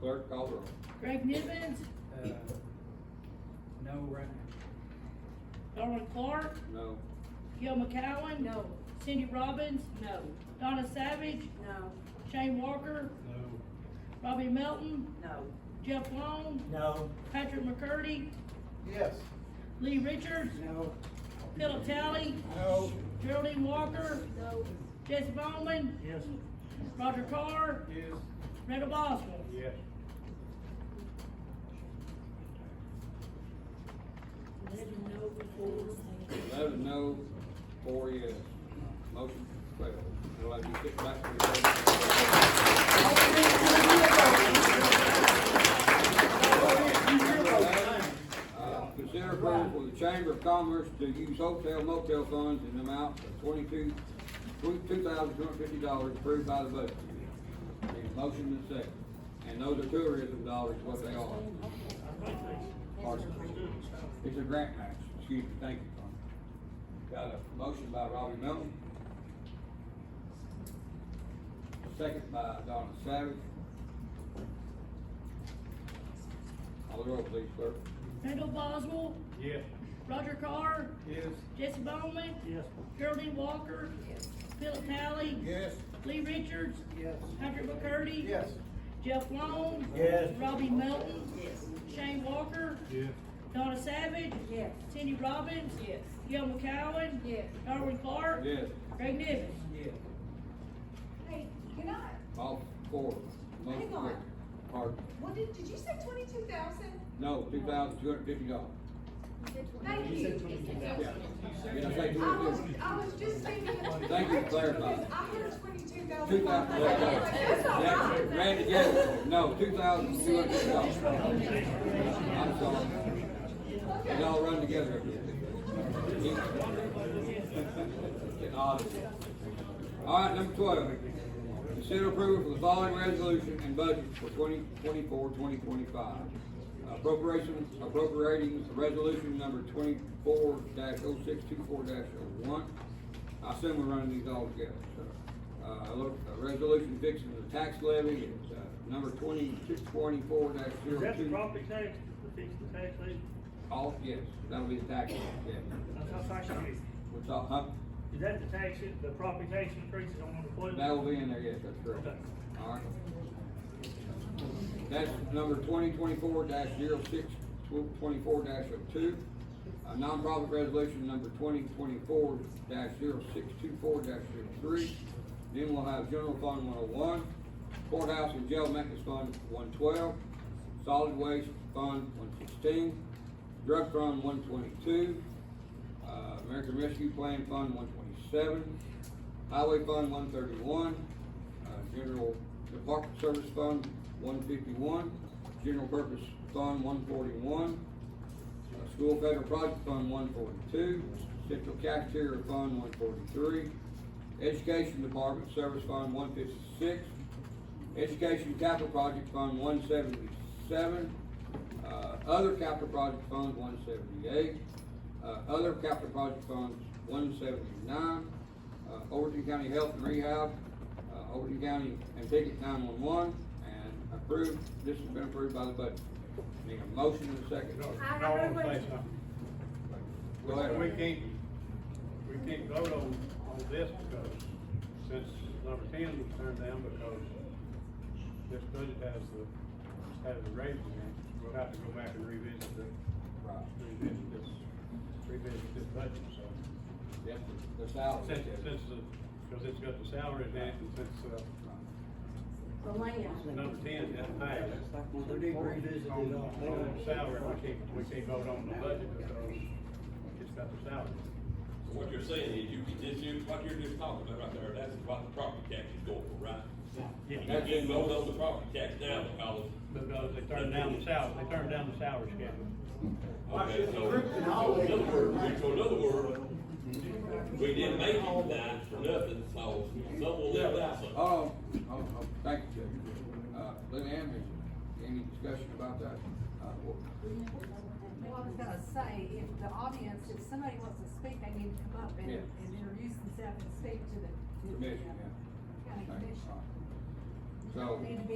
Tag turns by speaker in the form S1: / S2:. S1: Clerk, call the roll.
S2: Greg Nivens,
S3: Uh, No, right now.
S2: Darwin Clark,
S1: No.
S2: Gil McCowen. No. Cindy Robbins. No. Donna Savage. No. Shane Walker,
S3: No.
S2: Robbie Melton,
S4: No.
S2: Jeff Long,
S5: No.
S2: Patrick McCurdy,
S5: Yes.
S2: Lee Richards,
S5: No.
S2: Philip Talley,
S5: No.
S2: Geraldine Walker. No. Jesse Bowman,
S5: Yes.
S2: Roger Carr,
S5: Yes.
S2: Randall Boswell.
S5: Yes.
S1: Eleven no, four yes. Motion failed. It'll have you kicked back to the table. Uh, Consider approval for the Chamber of Commerce to use hotel motel funds in the amount of twenty-two, two thousand two hundred fifty dollars approved by the budget. Need a motion and a second. And those are tourism dollars, what they are. Pardon? It's a grant match, excuse me, thank you, Tom. Got a motion by Robbie Melton. Second by Donna Savage. Call the roll, please, clerk.
S2: Randall Boswell,
S5: Yes.
S2: Roger Carr,
S5: Yes.
S2: Jesse Bowman,
S5: Yes.
S2: Geraldine Walker, Philip Talley,
S5: Yes.
S2: Lee Richards,
S5: Yes.
S2: Patrick McCurdy.
S5: Yes.
S2: Jeff Long.
S5: Yes.
S2: Robbie Melton.
S4: Yes.
S2: Shane Walker.
S5: Yes.
S2: Donna Savage.
S4: Yes.
S2: Cindy Robbins.
S4: Yes.
S2: Gil McCowen.
S4: Yes.
S2: Darwin Clark.
S1: Yes,
S2: Greg Nivens.
S5: Yes.
S6: Hey, can I,
S1: all four. Motion
S6: Hang on.
S1: carried. Pardon?
S6: what did, did you say twenty-two thousand?
S1: No, two thousand two hundred fifty dollars.
S6: Thank you.
S1: Yeah. Did I say two
S6: I was,
S1: hundred fifty?
S6: I was just thinking. of-
S1: Thank you for clarifying.
S6: Because I heard twenty-two
S1: Two thousand.
S6: thousand. That's all right.
S1: Randy Jefferson, no, two thousand two hundred fifty dollars. I'm sorry. They all run together. Get odd. All right, number twelve. Consider approval for the following resolution and budget for 2024-2025. Appropriation, appropriating resolution number twenty-four oh 624 oh one I assume we're running these all together, so. Uh, look, a resolution fixing the tax levy, it's, uh, number twenty-two twenty-four dash
S7: Is
S1: zero
S7: that the
S1: two.
S7: property tax, the fixed tax levy?
S1: All, yes, that'll be the tax, levy, yeah.
S7: That's how tax it is.
S1: What's all, huh?
S7: Is that the tax, the property tax increases on the flood?
S1: That will be in there, yes, that's correct.
S7: Okay.
S1: All right. That's number twenty twenty-four dash zero six twenty-four dash oh two. A nonprofit resolution number twenty twenty-four dash zero six two four dash zero three. Then we'll have general fund one oh one, courthouse and jail maintenance fund one twelve, solid waste fund one sixteen, drug fund one twenty-two, uh, American Rescue Plan Fund one twenty-seven, Highway Fund one thirty-one, uh, General Department Service Fund one fifty-one, General Purpose Fund one forty-one, uh, School Federal Project Fund one forty-two, Central Cafeteria Fund one forty-three, Education Department Service Fund one fifty-six, Education Capital Project Fund one seventy-seven, uh, Other Capital Project Fund one seventy-eight, uh, Other Capital Project Funds one seventy-nine, uh, Overton County Health and Rehab, uh, Overton County and Ticket nine-one-one, and approved, this has been approved by the budget. Need a motion and a second.
S6: I
S3: No,
S6: heard
S3: I'm
S6: what-
S3: saying something.
S1: Go ahead.
S3: We can't, we can't vote on, on this because, since number ten was turned down because this budget has the, has the raise in it, we'll have to go back and revisit the,
S1: Right.
S3: revisit this, revisit this budget, so.
S1: Yes, the- the salary.
S3: Since, since the, because it's got the salaries in it, and since, uh,
S4: The land.
S3: number ten doesn't pass.
S8: Well, they did revisit it all.
S3: On,
S5: Oh,
S3: on the salary, we can't, we can't vote on the budget because it's got the salary.
S9: So What you're saying is you, this, you, what you're just talking about right there, that's what the property tax is going for, right? You
S1: That's
S9: can
S1: in
S9: vote
S1: both.
S9: on the property tax now because,
S3: Because they turned down the salary, they turned down the salary schedule.
S9: okay, so, so in other words, so in other words, we didn't make it tonight for nothing, so someone left out something.
S1: Oh, oh, oh, thank you, Judge. Uh, Lynn Ann, is there any discussion about that? Uh, well,
S10: Well, I was gonna say, if the audience, if somebody wants to speak, they need to come up and,
S1: Yeah.
S10: and introduce themselves and speak to the, to the
S1: Commission,
S10: uh,
S1: yeah.
S10: county
S1: thank you.
S10: commission.
S1: All right. So.
S10: Need to be